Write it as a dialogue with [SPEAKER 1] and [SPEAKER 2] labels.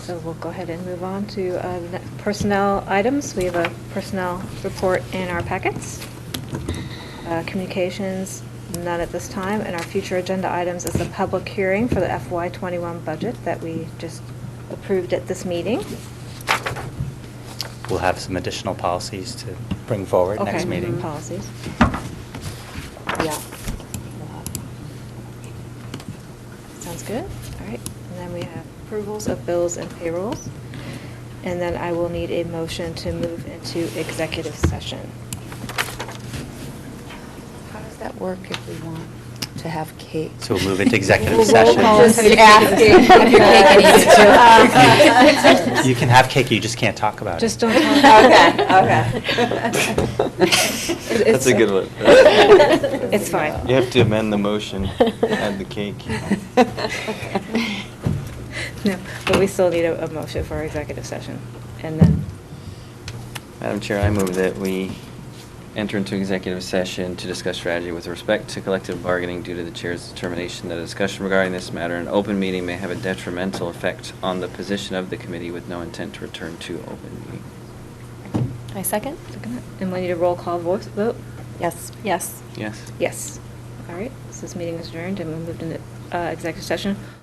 [SPEAKER 1] So we'll go ahead and move on to uh, the next personnel items. We have a personnel report in our packets. Uh, Communications, none at this time. And our future agenda items is the public hearing for the FY21 budget that we just approved at this meeting.
[SPEAKER 2] We'll have some additional policies to bring forward next
[SPEAKER 1] Okay,
[SPEAKER 2] meeting.
[SPEAKER 1] Policies. Yeah. Sounds good. All right. And then we have approvals of bills and payrolls. And then I will need a motion to move into executive session.
[SPEAKER 3] How does that work if we want to have cake?
[SPEAKER 2] So we'll move into executive
[SPEAKER 3] We'll roll
[SPEAKER 2] session.
[SPEAKER 3] call us and ask if your cake needs to-
[SPEAKER 2] You can have cake, you just can't talk about it.
[SPEAKER 1] Just don't talk. It-
[SPEAKER 4] That's
[SPEAKER 1] it's-
[SPEAKER 4] a good one.
[SPEAKER 1] It's fine.
[SPEAKER 4] You have to amend the motion, add the cake.
[SPEAKER 1] No, but we still need a a motion for executive session. And then,
[SPEAKER 4] Madam Chair, I move that we enter into executive session to discuss strategy with respect to collective bargaining due to the chair's determination that a discussion regarding this matter in open meeting may have a detrimental effect on the position of the committee with no intent to return to open meeting.
[SPEAKER 5] I second?
[SPEAKER 1] and we need a roll call voice vote?
[SPEAKER 3] Yes.
[SPEAKER 5] Yes.
[SPEAKER 4] Yes?
[SPEAKER 1] Yes. All right, so this meeting is adjourned and we moved into uh, executive session.